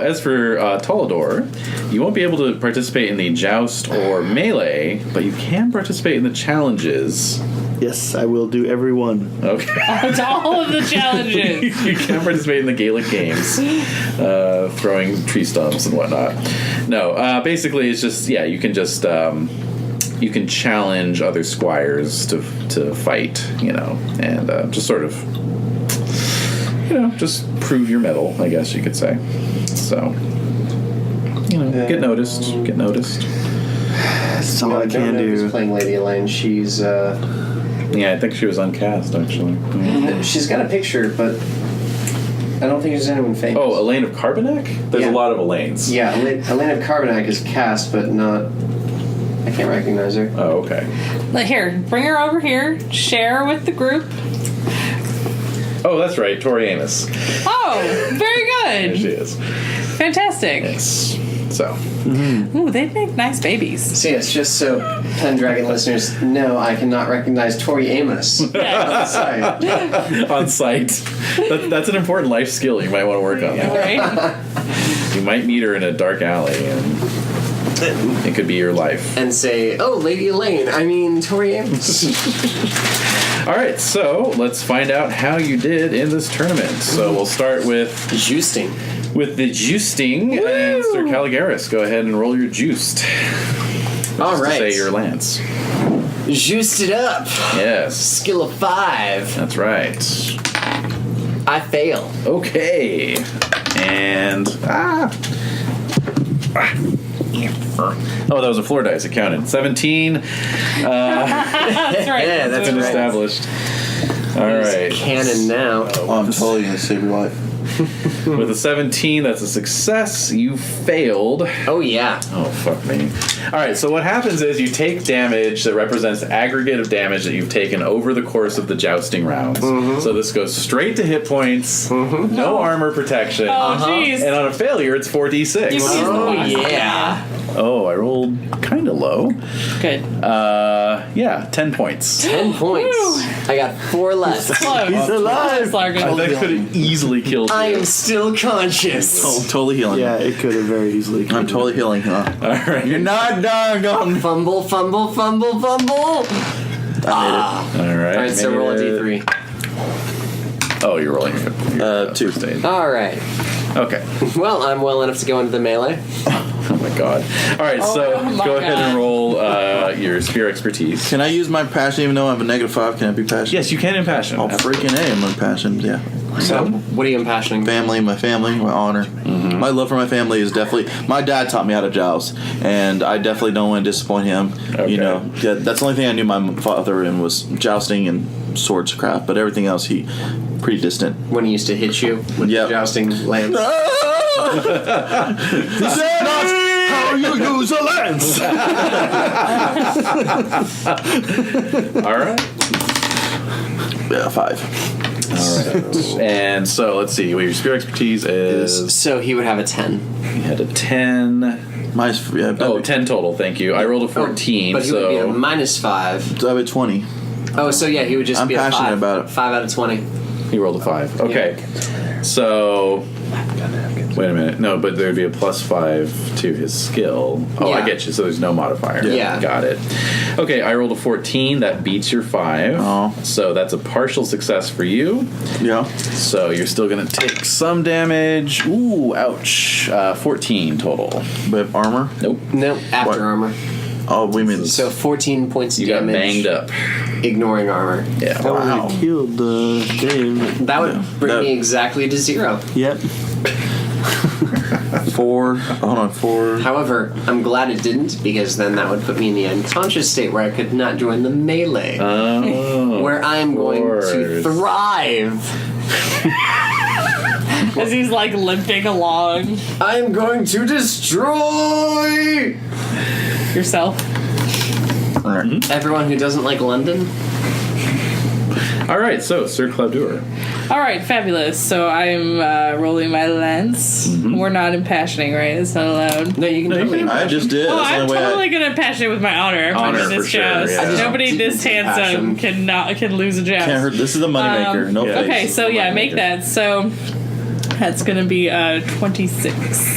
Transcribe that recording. As for uh, Tolador, you won't be able to participate in the joust or melee, but you can participate in the challenges. Yes, I will do every one. Okay. It's all of the challenges. you can participate in the Gaelic games, uh, throwing tree stumps and whatnot. No, uh, basically, it's just, yeah, you can just. Um, you can challenge other squires to to fight, you know, and uh, just sort of, you know, just prove your mettle, I guess you could say. So, you know, get noticed, get noticed. That's all I don't can know who's do. playing Lady Elaine. She's uh, Yeah, I think she was uncast actually. Yeah. she's got a picture, but I don't think there's anyone famous. Oh, Elaine of Carbonac. There's Yeah. a lot of Elaines. yeah, Elaine, Elaine of Carbonac is cast, but not. I can't recognize her. Oh, okay. Like, here, bring her over here. Share with the group. Oh, that's right, Tori Amos. Oh, very There she good. is. Fantastic. Yes. So, Ooh, they make nice babies. So yes, just so Pendragon listeners know, I cannot recognize Tori Amos. Yes. Sorry. on site, that, that's an important life skill you might want to work on. Right? You might meet her in a dark alley, and Mm-hmm. it could be your life. And say, oh, Lady Elaine. I mean, Tori Amos. All right, so let's find out how you did in this tournament. Mm-hmm. So we'll start with Justing. with the juicing, and Sir Caligaris, go ahead and roll your juiced. All Just to right. say your lance. Juiced it up. Yes, Skill of five. that's right. I fail. Okay. And ah. Ah. Oh, that was a floor dice. It counted. 17. That's right. Yeah, It's that's been right. established. All right. Cannon now. Oh, I'm totally gonna save your life. With a 17, that's a success. You failed. Oh yeah. Oh, fuck me. All right, so what happens is you take damage that represents aggregate of damage that you've taken over the course of the jousting rounds. So this goes straight to hit points, no armor protection. Oh, jeez. And on a failure, it's 4d6. You squeeze the Oh box. yeah. Oh, I rolled kind of low. Good. Uh, yeah, 10 points. Ten points. I got four left. Close. He's alive. Largo. that could have easily killed I you. am still Oh, conscious. totally healing. Yeah, it could have very easily. I'm totally healing. Huh? All right. You're not done. Gone. Fumble, fumble, fumble, fumble. I All right. All right, so roll a maybe that- d3. Oh, you're rolling. your- made it. your Uh, two. stage. All right. Okay. Well, I'm well enough to go into the melee. Oh my god. All right, so Oh my go ahead God. and roll uh, your spear expertise. Can I use my passion even though I have a negative five? Can I be passionate? Yes, you can impassion. Oh, freaking A, I'm impassioned, yeah. So, what are you impassioning? Family, my family, my honor. My love for my family is definitely. My dad taught me how to joust, and I definitely don't want to disappoint him. Okay. You know, yeah, that's the only thing I knew my father in was jousting and swords craft, but everything else, he pretty distant. When he used to hit you with Yep. the jousting lance. how you use a lance! All right. Yeah, five. And so let's see. Well, your spear expertise is. So he would have a ten. You had a 10. Mine's, yeah, that'd Oh, be- 10 total, thank you. I rolled a 14, but he would be a so minus five. that'd be 20. Oh, so yeah, he would just I'm be a passionate five. about it. Five out of twenty. he Oh, rolled a 5. Okay. So. Wait a minute. No, but there'd be a plus 5 to his skill. Oh, I Yeah. get you. So there's no modifier. Yeah. Got it. Okay, I rolled a 14. That beats your 5. Oh. So that's a partial success for you. Yeah. So you're still going to take some damage. Ooh, ouch. Uh, 14 total. But armor? Nope. No, after What? armor. Oh, we mean. So fourteen points You got damage. banged up. Ignoring armor. Yeah. That would have killed the game. That would bring that- me exactly to zero. Yep. four. Hold on, four. However, I'm glad it didn't because then that would put me in the unconscious state where I could not join the melee, Oh. where I'm going to course. thrive. As he's like limping along I'm going to destroy yourself. everyone who doesn't like London. All right, so Sir Claudur. All right, fabulous. So I'm uh, rolling my lens. We're not impassioning, right? It's not allowed. No, you can. you totally- can- I just did. Oh, That's the I'm only way I- totally gonna impassion with my honor. I'm Honor, winning this for sure, joust. yeah. I just- Nobody this handsome Passion. can not can lose a joust. Can't hurt. This is a moneymaker. Um, no yeah. face. Okay, so yeah, make that. So That's gonna be uh, 26.